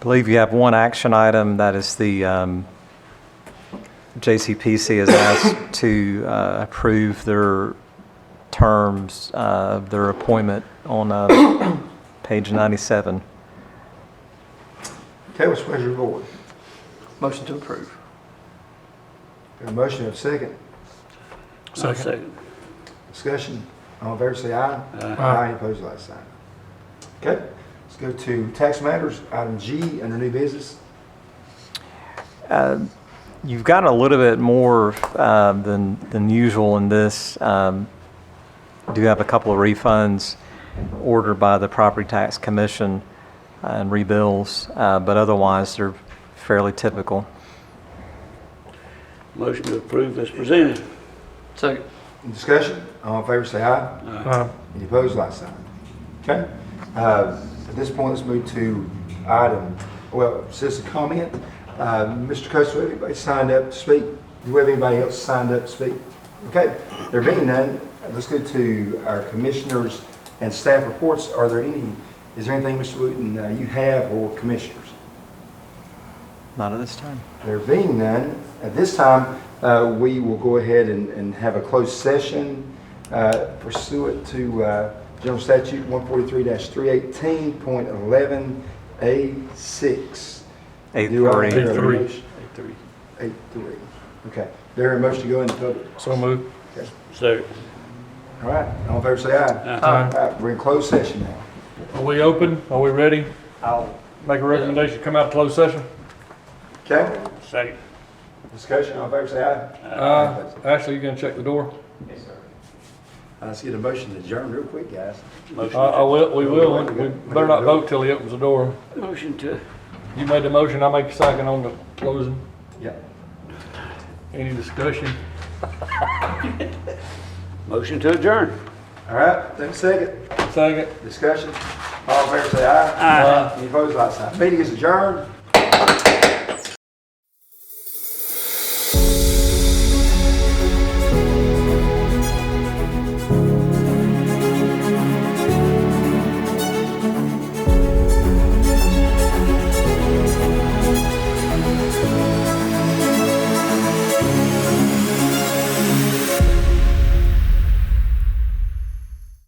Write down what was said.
believe you have one action item, that is the um, JCPC is asked to uh, approve their terms, uh, their appointment on uh, page 97. Okay, what's the pleasure of the board? Motion to approve. Got a motion and a second. Second. Discussion, all in favor say aye. uh, Aye. Opposed, like sign. Okay, let's go to tax matters, item G, under new business. Uh, You've got a little bit more uh, than, than usual in this. Um, Do have a couple of refunds ordered by the Property Tax Commission and rebills, uh, but otherwise, they're fairly typical. Motion to approve as presented. Second. Discussion, all in favor say aye. Aye. Any opposed, like sign. Okay, uh, at this point, let's move to item, well, citizen comment. Uh, Mr. Coastal, anybody signed up to speak? Do we have anybody else signed up to speak? Okay, there being none, let's go to our commissioners and staff reports. Are there any, is there anything, Mr. Wooten, uh, you have or commissioners? Not at this time. There being none, at this time, uh, we will go ahead and, and have a closed session uh, pursuant to uh, General Statute 143-318.11A6. Eight Do I hear three. a three. motion? Three. Eight three. Okay. There are motion to go into public. So moved. Second. All right, all in favor, say aye. uh, All Aye. right, we're in closed session now. Are we open? Are we ready? I'll. Make a recommendation, come out of closed session? Okay, Second. discussion, all in favor, say aye. Uh, Ashley, you gonna check the door? Uh, Let's get a motion to adjourn real quick, guys. Uh, I Motion, will, we will, we better not vote till he opens the door. to- motion to, You made the motion, I make a second on the closing. Yep. Any discussion? motion to adjourn. All right, take a second. Second? Discussion? All in favor, say aye. Aye. Any opposed, like sign. Meeting is adjourned.